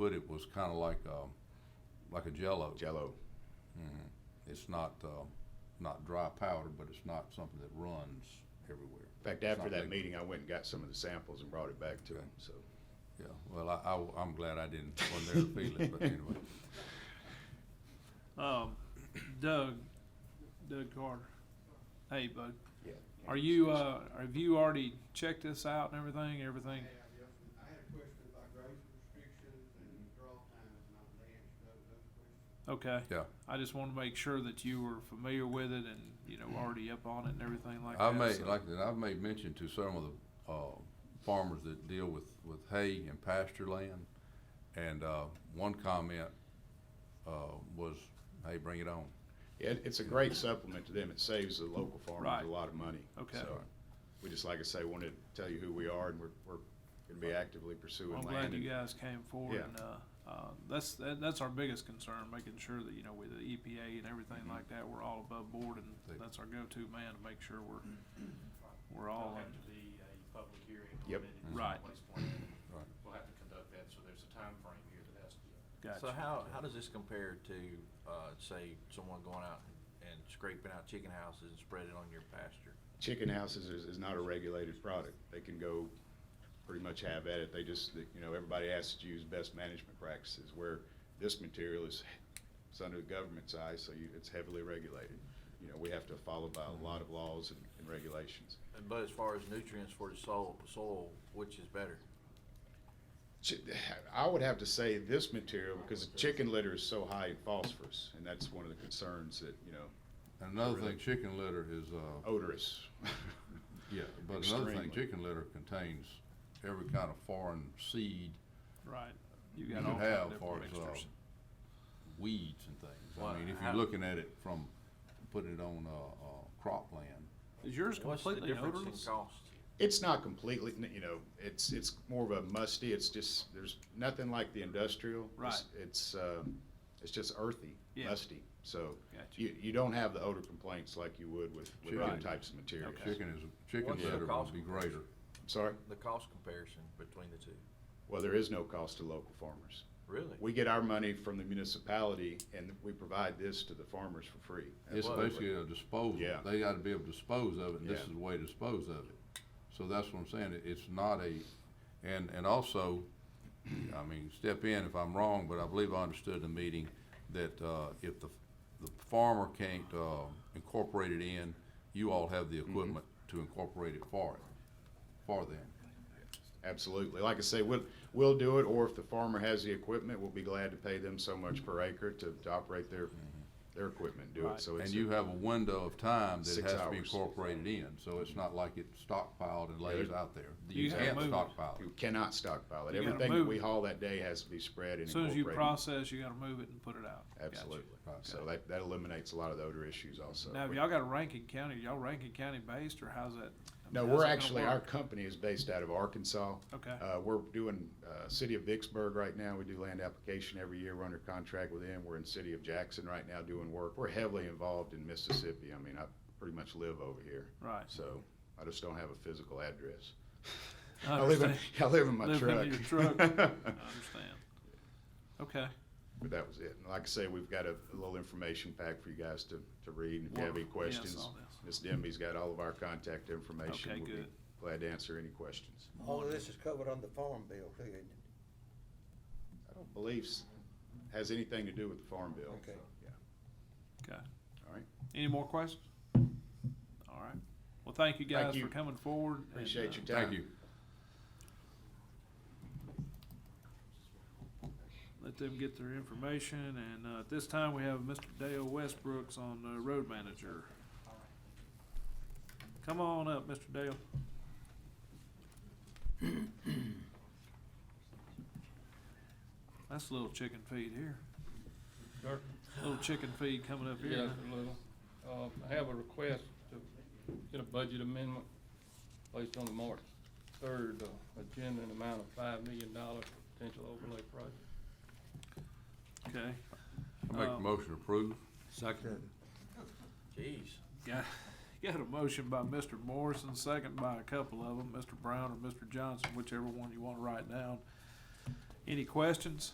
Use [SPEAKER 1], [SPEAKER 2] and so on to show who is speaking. [SPEAKER 1] put it was kind of like, um, like a jello.
[SPEAKER 2] Jello.
[SPEAKER 1] Mhm. It's not, uh, not dry powder, but it's not something that runs everywhere.
[SPEAKER 2] In fact,
[SPEAKER 1] It's
[SPEAKER 2] after
[SPEAKER 1] not
[SPEAKER 2] that
[SPEAKER 1] liquid.
[SPEAKER 2] meeting, I went and got some of the samples and brought it back to
[SPEAKER 1] Okay.
[SPEAKER 2] him, so.
[SPEAKER 1] Yeah, well, I, I, am glad I didn't, wasn't there to feel it, but anyway.
[SPEAKER 3] Um, Doug, Doug Carter. Hey, bud.
[SPEAKER 2] Yeah.
[SPEAKER 3] Are you, uh, have you already checked this out and everything? Everything?
[SPEAKER 4] Yeah, yes, and I had a question about grazing restrictions and draw times, and I was answered those those questions.
[SPEAKER 3] Okay.
[SPEAKER 1] Yeah.
[SPEAKER 3] I just wanted to make sure that you were familiar with it and, you know, already up on it and everything like
[SPEAKER 1] I've
[SPEAKER 3] that.
[SPEAKER 1] made,
[SPEAKER 3] so-
[SPEAKER 1] like, I said, I've made mention to some of the, uh, farmers that deal with, with hay and pasture land. And, uh, one comment, uh, was, hey, bring it on.
[SPEAKER 2] Yeah, it- it's a great supplement to them. It saves the local farmers
[SPEAKER 3] Right.
[SPEAKER 2] a lot of money.
[SPEAKER 3] Okay.
[SPEAKER 2] So, We just, like I say, wanted to tell you who we are and we're, we're gonna be actively pursuing
[SPEAKER 3] I'm
[SPEAKER 2] land.
[SPEAKER 3] glad
[SPEAKER 2] and-
[SPEAKER 3] you guys came forward
[SPEAKER 2] Yeah.
[SPEAKER 3] and, uh, uh, that's, that, that's our biggest concern, making sure that, you know, with the EPA and everything like that, we're all above board
[SPEAKER 1] Mm-hmm. They-
[SPEAKER 3] and that's our go-to man to make sure we're, we're all
[SPEAKER 5] There'll have
[SPEAKER 3] in.
[SPEAKER 5] to be a public hearing on
[SPEAKER 2] Yep.
[SPEAKER 5] it.
[SPEAKER 1] Mhm.
[SPEAKER 3] Right.
[SPEAKER 1] Right.
[SPEAKER 5] We'll have to conduct that, so there's a time frame here that has to be.
[SPEAKER 3] Gotcha.
[SPEAKER 6] So how, how does this compare to, uh, say, someone going out and scraping out chicken houses and spreading it on your pasture?
[SPEAKER 2] Chicken houses is, is not a regulated product. They can go pretty much have at it. They just, you know, everybody asks to use best management practices where this material is, it's under the government's eye, so you, it's heavily regulated. You know, we have to follow by a lot of laws and, and regulations.
[SPEAKER 6] But as far as nutrients for the soil, soil, which is better?
[SPEAKER 2] Chi- I would have to say this material because chicken litter is so high in phosphorus, and that's one of the concerns that, you know,
[SPEAKER 1] Another
[SPEAKER 2] Really?
[SPEAKER 1] thing, chicken litter is, uh,
[SPEAKER 2] odorous.
[SPEAKER 1] Yeah, but another
[SPEAKER 2] Extremely.
[SPEAKER 1] thing, chicken litter contains every kind of foreign seed
[SPEAKER 3] Right. You
[SPEAKER 1] you
[SPEAKER 3] got
[SPEAKER 1] could
[SPEAKER 3] all kinds of
[SPEAKER 1] have
[SPEAKER 3] different
[SPEAKER 1] for uh,
[SPEAKER 3] mixtures.
[SPEAKER 1] weeds and things.
[SPEAKER 6] Well,
[SPEAKER 1] I mean, if
[SPEAKER 6] how-
[SPEAKER 1] you're looking at it from putting it on, uh, uh, cropland,
[SPEAKER 3] Is yours
[SPEAKER 6] What's the
[SPEAKER 3] completely
[SPEAKER 6] difference in
[SPEAKER 3] odorless?
[SPEAKER 6] cost?
[SPEAKER 2] It's not completely, you know, it's, it's more of a musty, it's just, there's nothing like the industrial. It's- It's, uh, it's just earthy,
[SPEAKER 3] Yeah.
[SPEAKER 2] musty, so
[SPEAKER 3] Gotcha.
[SPEAKER 2] you, you don't have the odor complaints like you would with, with
[SPEAKER 1] Chicken.
[SPEAKER 2] other types of materials.
[SPEAKER 1] chicken is, chicken
[SPEAKER 6] What's your
[SPEAKER 1] litter
[SPEAKER 6] cost
[SPEAKER 1] would be
[SPEAKER 6] comparison?
[SPEAKER 1] greater.
[SPEAKER 2] Sorry?
[SPEAKER 6] The cost comparison between the two?
[SPEAKER 2] Well, there is no cost to local farmers.
[SPEAKER 6] Really?
[SPEAKER 2] We get our money from the municipality and we provide this to the farmers for free.
[SPEAKER 1] It's
[SPEAKER 6] Absolutely.
[SPEAKER 1] basically a disposal.
[SPEAKER 2] Yeah.
[SPEAKER 1] They gotta be able to dispose of it, and this
[SPEAKER 2] Yeah.
[SPEAKER 1] is the way to dispose of it. So that's what I'm saying, it, it's not a, and, and also, I mean, step in if I'm wrong, but I believe I understood the meeting that, uh, if the, the farmer can't, uh, incorporate it in, you all have the
[SPEAKER 2] Mm-hmm.
[SPEAKER 1] equipment to incorporate it for it, for them.
[SPEAKER 2] Absolutely. Like I say, we'll, we'll do it, or if the farmer has the equipment, we'll be glad to pay them so much per acre to, to operate their, their equipment and do
[SPEAKER 3] Mm-hmm. Right.
[SPEAKER 2] it. So
[SPEAKER 1] And
[SPEAKER 2] it's,
[SPEAKER 1] you have a window of time that it
[SPEAKER 2] Six
[SPEAKER 1] has to be
[SPEAKER 2] hours.
[SPEAKER 1] incorporated in, so it's not like it's stockpiled and lays
[SPEAKER 2] Yeah.
[SPEAKER 1] out there.
[SPEAKER 3] You
[SPEAKER 1] You
[SPEAKER 3] have
[SPEAKER 1] can't
[SPEAKER 3] moved.
[SPEAKER 1] stockpile it.
[SPEAKER 2] you cannot stockpile it.
[SPEAKER 3] You gotta
[SPEAKER 2] Everything that
[SPEAKER 3] move
[SPEAKER 2] we
[SPEAKER 3] it.
[SPEAKER 2] haul that day has to be spread and
[SPEAKER 3] As soon as you
[SPEAKER 2] incorporated.
[SPEAKER 3] process, you gotta move it and put it out. Gotcha.
[SPEAKER 2] Absolutely.
[SPEAKER 1] Right.
[SPEAKER 2] So that, that eliminates a lot of the odor issues also.
[SPEAKER 3] Now, have
[SPEAKER 2] We-
[SPEAKER 3] y'all got a Rankin County, y'all Rankin County based, or how's that? I
[SPEAKER 2] No,
[SPEAKER 3] mean, how's
[SPEAKER 2] we're
[SPEAKER 3] that gonna
[SPEAKER 2] actually, our
[SPEAKER 3] work?
[SPEAKER 2] company is based out of Arkansas.
[SPEAKER 3] Okay.
[SPEAKER 2] Uh, we're doing, uh, City of Vicksburg right now. We do land application every year. We're under contract with them. We're in City of Jackson right now doing work. We're heavily involved in Mississippi. I mean, I pretty much live over here.
[SPEAKER 3] Right.
[SPEAKER 2] So I just don't have a physical address.
[SPEAKER 3] I
[SPEAKER 2] I live in,
[SPEAKER 3] understand.
[SPEAKER 2] I live in my
[SPEAKER 3] Live
[SPEAKER 2] truck.
[SPEAKER 3] in your truck. I understand. Okay,
[SPEAKER 2] But that was it. And like I say, we've got a, a little information pack for you guys to, to read. And If you have any
[SPEAKER 3] Wonderful. Yeah, I
[SPEAKER 2] questions,
[SPEAKER 3] saw this.
[SPEAKER 2] Ms. Demby's got all of our contact information.
[SPEAKER 3] Okay,
[SPEAKER 2] We'll be
[SPEAKER 3] good.
[SPEAKER 2] Glad to answer any questions.
[SPEAKER 4] All of this is covered on the farm bill, too, isn't it?
[SPEAKER 2] I don't believe s- has anything to do with the Farm Bill.
[SPEAKER 4] Okay.
[SPEAKER 2] Yeah.
[SPEAKER 3] okay.
[SPEAKER 2] All right.
[SPEAKER 3] Any more questions? All right. Well, thank you
[SPEAKER 2] Thank
[SPEAKER 3] guys for
[SPEAKER 2] you.
[SPEAKER 3] coming forward. and,
[SPEAKER 2] Appreciate
[SPEAKER 3] uh,
[SPEAKER 2] your time.
[SPEAKER 1] Thank you.
[SPEAKER 3] Let them get their information, and, uh, at this time, we have Mr. Dale Westbrooks on, uh, road manager. Come on up, Mr. Dale. That's a little chicken feed here.
[SPEAKER 7] Sure.
[SPEAKER 3] Little chicken feed coming up
[SPEAKER 7] Yes,
[SPEAKER 3] here.
[SPEAKER 7] a little. Uh, I have a request to get a budget amendment placed on the March third uh, agenda in amount of five million dollar potential overlay project.
[SPEAKER 3] Okay.
[SPEAKER 1] I make a
[SPEAKER 3] Um,
[SPEAKER 1] motion to approve.
[SPEAKER 6] Jeez.
[SPEAKER 3] Got, got a motion by Mr. Morrison, second by a couple of them, Mr. Brown or Mr. Johnson, whichever one you want to write down. Any questions?